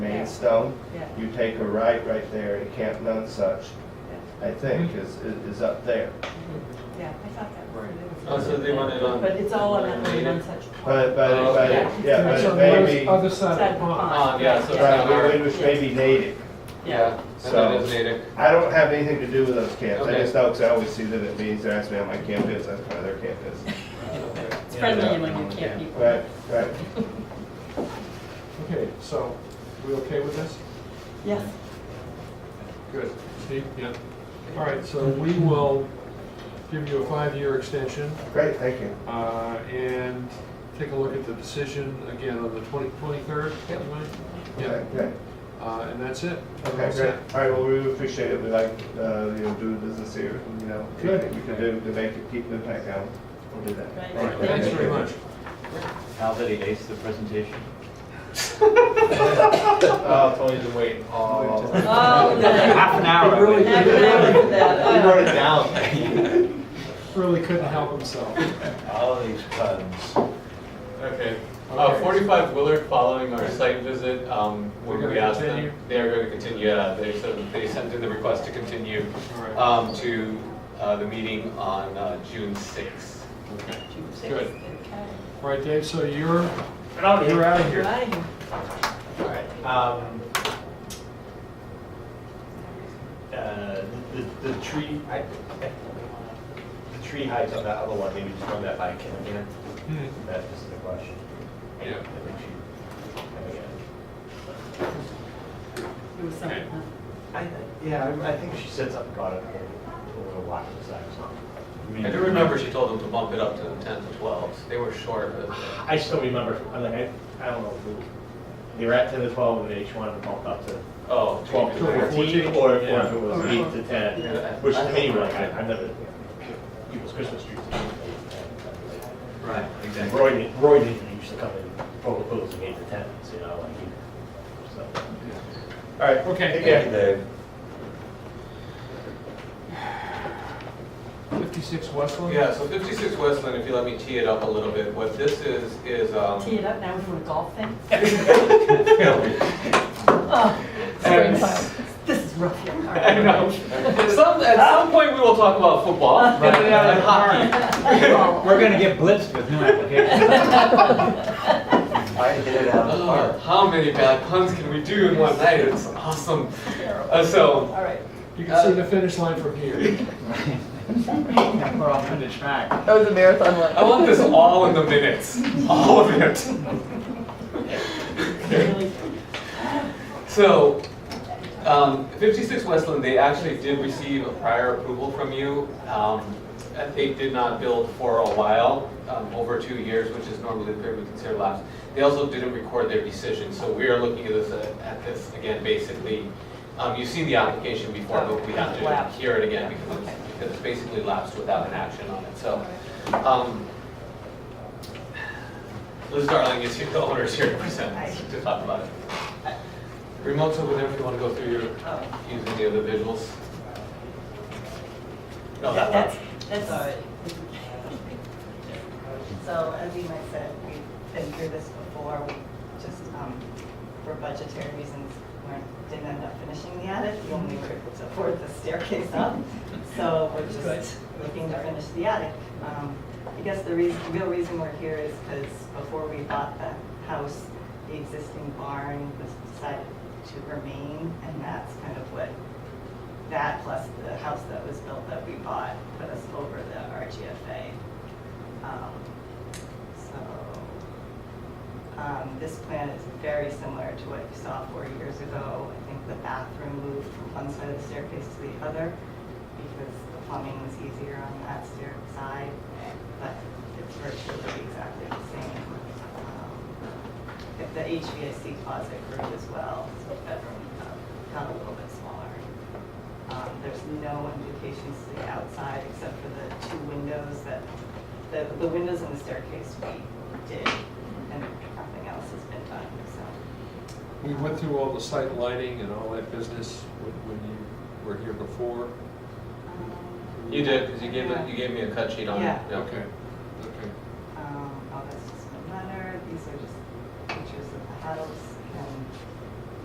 in stone. Yeah. You take a right right there at Camp Nunsuch, I Mm-hmm. think, is, is is up there. Yeah, I thought that was. Oh, so they want it on. But it's all on that one, on such. But, Oh, but, but, Yeah. yeah, but It's it on the may be, other- other side Side of of the the pond. Oh, yeah, so it's right, not we- our. we- which may be native. Yeah, and So- it is native. I don't have anything to do with those camps, I Okay. just know, because I always see them at meetings, they're asking me how my camp is, that's where their camp is. It's friendly among your camp people. Right, right. Okay, so, we okay with this? Yes. Good. Steve? Yeah. All right, so we will give you a five-year extension Great, thank you. uh, and take a look at the decision again on the 20 23rd. Yep. Yeah, Okay, uh, and that's it. okay, That's great. it. All right, well, we really appreciate it, we like, uh, you know, doing business here, and, you know, Good. anything we can do to make it, keep the impact down, we'll do that. Right. All right, Thank you. thanks very much. How did he ace the presentation? Oh, Tony's been waiting all. Oh, Half an hour. I really waited. Half an hour for He that. wrote it down. Really couldn't help himself. All these puns. Okay. Uh, Okay. forty-five Willard, following our site visit, um, when They're we gonna asked them, continue? they are going to continue, yeah, they sort of, they sent in the request to continue, All right. um, to, uh, the meeting on, uh, June sixth. Good. All right, Dave, so you're, out of you're out of here. Right. All right, um, uh, the, the tree, I, the tree heights on that other one, maybe just run that by Kim again, Hmm. that is the question. Yeah. I think she, I think, It was something, huh? I, yeah, I I think she said something about it a little while ago, I do remember she told them to bump it up to the tenth or twelfth, they were short, but. I still remember, I mean, I, I don't know, if it- they were at ten to twelve, and they each wanted to bump up to Oh. twelve to Twelve to fourteen. fourteen, or or if Yeah. it was eight to Yeah. ten, which to me, like, I, I never, people's Christmas trees. Right, And exactly. Roy, didn't- Roy didn't used to come and propose and eight to ten, you know, like, he- so. All right, Okay. take care. Dave. 56 Westland? Yeah, so 56 Westland, if you let me tee it up a little bit, what this is, is, um, Tee it up, now we're doing a golf thing. Oh, This is rough. here. All right. I know. At some, at some point, we will talk about football and then and hockey. We're gonna get blitzed with new applications. I hit it out Oh, How many bad puns can we do in one night? It's awesome. Uh, So, All right. You can see the finish line from here. We're off on the track. That was a marathon one. I want this all in the minutes, all of it. Really? So, um, 56 Westland, they actually did receive a prior approval from you. Um, and They did not build for a while, um, over two years, which is normally the period we consider lapse. They also didn't record their decision, so we are looking at this, uh, at this again, basically. um, You've seen the application before, but we have to Lapse. hear it again because it's- because it's basically lapsed without an action on it, so. um, Liz Darling is here, the owner is here to present, to talk about it. Remote's over there if you want to go through your, oh. using the other visuals. No, that That's, one. that's all right. So as Ema said, we've been through this before, we just, um, for budgetary reasons, weren't, didn't end up finishing the attic. We only were able to afford the staircase up, so we're just looking to finish the attic. Um, I guess the reason, real reason we're here is because before we bought the house, the existing barn was decided to remain, and that's kind of what that plus the house that was built that we bought put us over the RGFA. Um, So, um, this plan is very similar to what you saw four years ago. I think the bathroom moved from one side of the staircase to the other because the plumbing was easier on that stair side, but it's virtually exactly the same. Um, If the HVAC closet grew as well, so the bedroom uh, got a little bit smaller. Um, There's no indications to the outside except for the two windows that, the, the windows and the staircase we did, and nothing else has been done, so. We went through all the site lighting and all that business when when you were here before. You did, because you gave, it- you gave me a cut sheet on it. Yeah. Okay, okay. um,